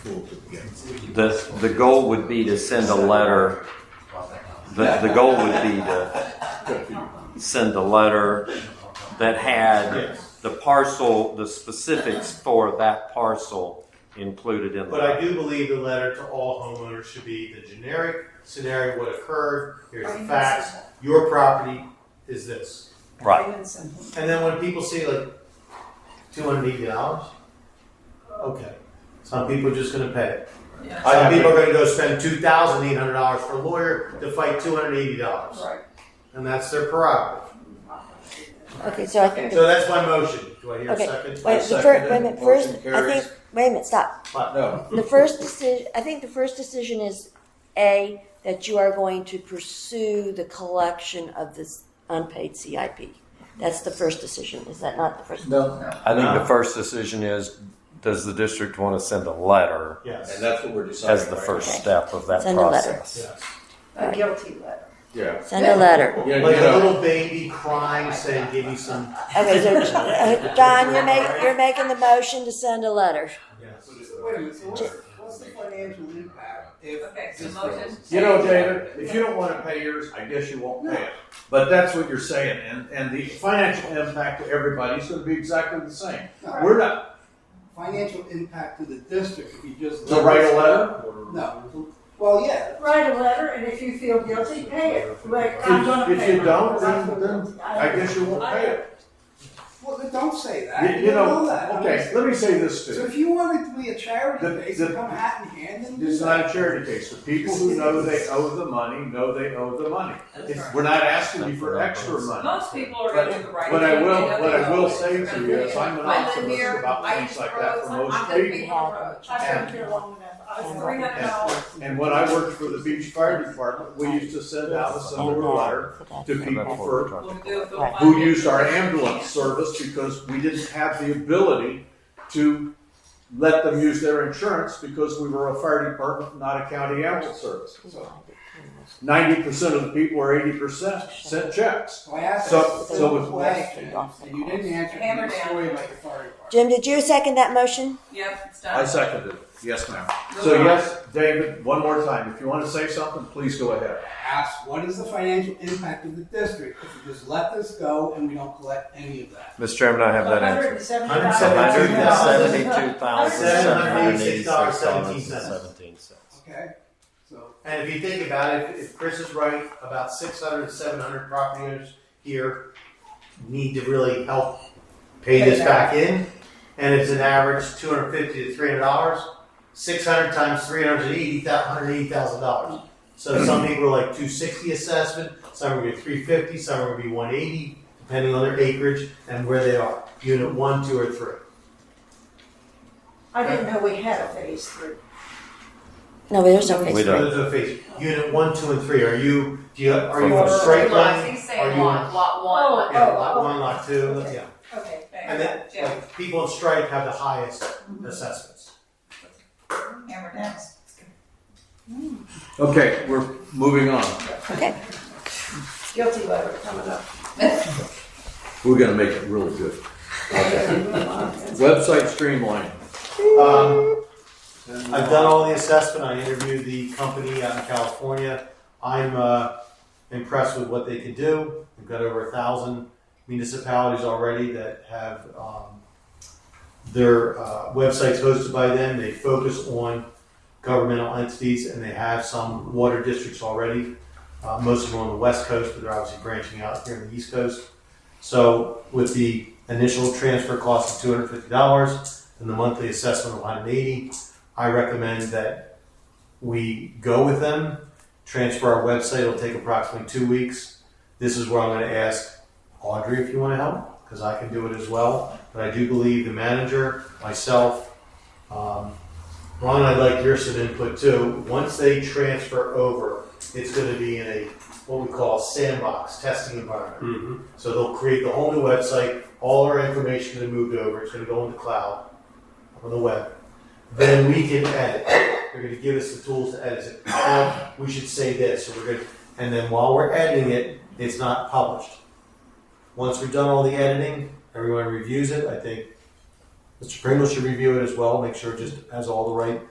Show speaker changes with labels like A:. A: school put together.
B: The, the goal would be to send a letter, the, the goal would be to send a letter that had the parcel, the specifics for that parcel included in the
C: But I
B: letter.
C: do believe the letter to all homeowners should be the generic scenario, what occurred, here's the facts, your property is this.
B: Right.
C: And then when people see like two hundred eighty dollars, okay, some people are just gonna pay it.
D: Yeah.
C: Some people are gonna go spend two thousand eight hundred dollars for a lawyer to fight two hundred eighty dollars,
D: Right.
C: and that's their prerogative.
E: Okay, so I think,
C: So that's my motion, do I hear a
E: Okay.
C: second?
E: wait, the first, wait a minute, first,
A: Motion
E: I think,
A: carries. Uh,
E: wait a minute, stop.
A: No,
E: The first decision, I think the first decision is, A, that you are going to pursue the collection of this unpaid CIP. That's the first decision, is that not the first?
A: no,
B: I think the first decision is, does the district want to send a letter
A: and
C: Yes,
A: that's what we're deciding.
B: as the
A: right
B: first
E: Okay.
B: step of that
E: Send a letter.
B: process?
C: yes.
D: A guilty letter.
A: now. Yeah.
E: Send a letter.
A: You know,
C: Like
A: you
C: a
A: know,
C: little baby crying saying, give me some,
E: Okay, so, uh, Don, you're making, you're making the motion to send a letter.
C: yes.
F: Wait a minute, so what's, what's the financial impact if?
D: Okay, so
F: this
D: motion.
F: fails?
A: you know, David, if you don't want to pay yours, I guess you won't pay it. But that's what you're saying, and, and the financial impact to everybody is going to be exactly the same. We're not,
F: Financial impact to the district if you just.
A: to write a letter,
F: No, well, yeah,
D: Write a letter, and if you feel guilty, pay it. Like, I'm gonna
A: If- if
D: pay
A: you
D: it,
A: don't,
D: because I
A: then-
D: feel
A: then
D: guilty.
A: I guess you won't pay it.
F: well, then don't say that,
A: You-
F: you
A: You
F: know that.
A: know, okay, let me say this to
F: So
A: you.
F: if you want it to be a charity
A: The-
F: case,
A: the-
F: and come hat in hand and do
A: It's not a
F: that.
A: charity case. The people who know they owe the money, know they owe the money.
D: That's
A: It's-
D: right.
A: We're not asking you for extra money.
D: Most people are
A: But-
D: gonna do the right
A: But I
D: thing.
A: will,
D: They know
A: what
D: they
A: I will
D: know
A: say
D: it's
A: to
D: right.
A: you is I'm an
D: I live
A: optimist
D: here,
A: about
D: I
A: things
D: use
A: like that for
D: roads, I'm
A: most
D: gonna be
A: people.
D: on the road. I've been here long enough. I was three hundred dollars.
A: And when I worked for the beach fire department, we used to send out a similar letter to people for, who used our ambulance service because we didn't have the ability to let them use their insurance because we were a fire department, not a county ambulance service. Ninety percent of the people or eighty percent sent checks.
F: So I asked
A: So-
F: a
A: so
F: simple
A: with-
F: question, and you didn't answer, it.
D: Hammer
F: you're
D: down.
F: story like a fire department.
E: Jim, did you second that motion?
D: Yep, it's
A: I
D: done.
A: seconded it. Yes, ma'am. So yes, David, one more time, if you want to say something, please go ahead.
F: Ask, what is the financial impact of the district if we just let this go and we don't collect any of that?
B: Mr. Chairman, I have that answer.
D: Hundred and seventy
B: Hundred and seventy-two
C: $172,776.
B: thousand, seven hundred and eighty-six dollars and seventeen cents.
F: Okay, so.
C: And if you think about it, if Chris is right, about 600, 700 property owners here need to really help pay this back in. And it's an average 250 to 300 dollars. 600 times 380, dollars. So some people are like 260 assessment, some are gonna be 350, some are gonna be 180, depending on their acreage and where they are, unit one, two, or three.
G: I didn't know we had a phase three.
E: No, there's no
B: We
E: phase.
B: don't.
C: Those are the phases. Unit one, two, and three. Are you do you are you
B: Or
C: a straight
D: Lots,
C: line?
D: he's
C: Are
D: saying
C: you-
D: lot, lot one.
C: Yeah,
G: Oh,
C: lot one, lot two,
G: okay.
C: yeah.
D: oh,
G: Okay.
C: And then,
D: Hammer Jim,
C: like, people in Stripe have the highest
G: Mm-hmm.
C: assessments.
D: hammer down.
A: Okay, we're moving on.
G: Guilty letter coming up.
A: We're gonna make it really good. Website streamlining.
C: Um, I've done all the assessment, I interviewed the company out in California. I'm, uh, impressed with what they could do. We've got over a thousand municipalities already that have, um, their, uh, websites hosted by them. They focus on governmental entities and they have some water districts already. Uh, most of them on the west coast, but they're obviously branching out here on the east coast. So with the initial transfer cost of two hundred fifty dollars, and the monthly assessment of 180. I recommend that we go with them, transfer our website. It'll take approximately two weeks. This is where I'm going to ask Audrey if you want to help because I can do it as well. But I do believe the manager, myself, um, Ron, I'd like your some input too. Once they transfer over, it's going to be in a what we call sandbox testing environment. So they'll create the whole new website. All our information is moved over. It's going to go in the cloud on the web. Then we can edit. They're going to give us the tools to edit it. Now, we should say this. So we're going, and then while we're editing it, it's not published. Once we've done all the editing, everyone reviews it. I think Mr. Pringle should review it as well. Make sure it just has all the right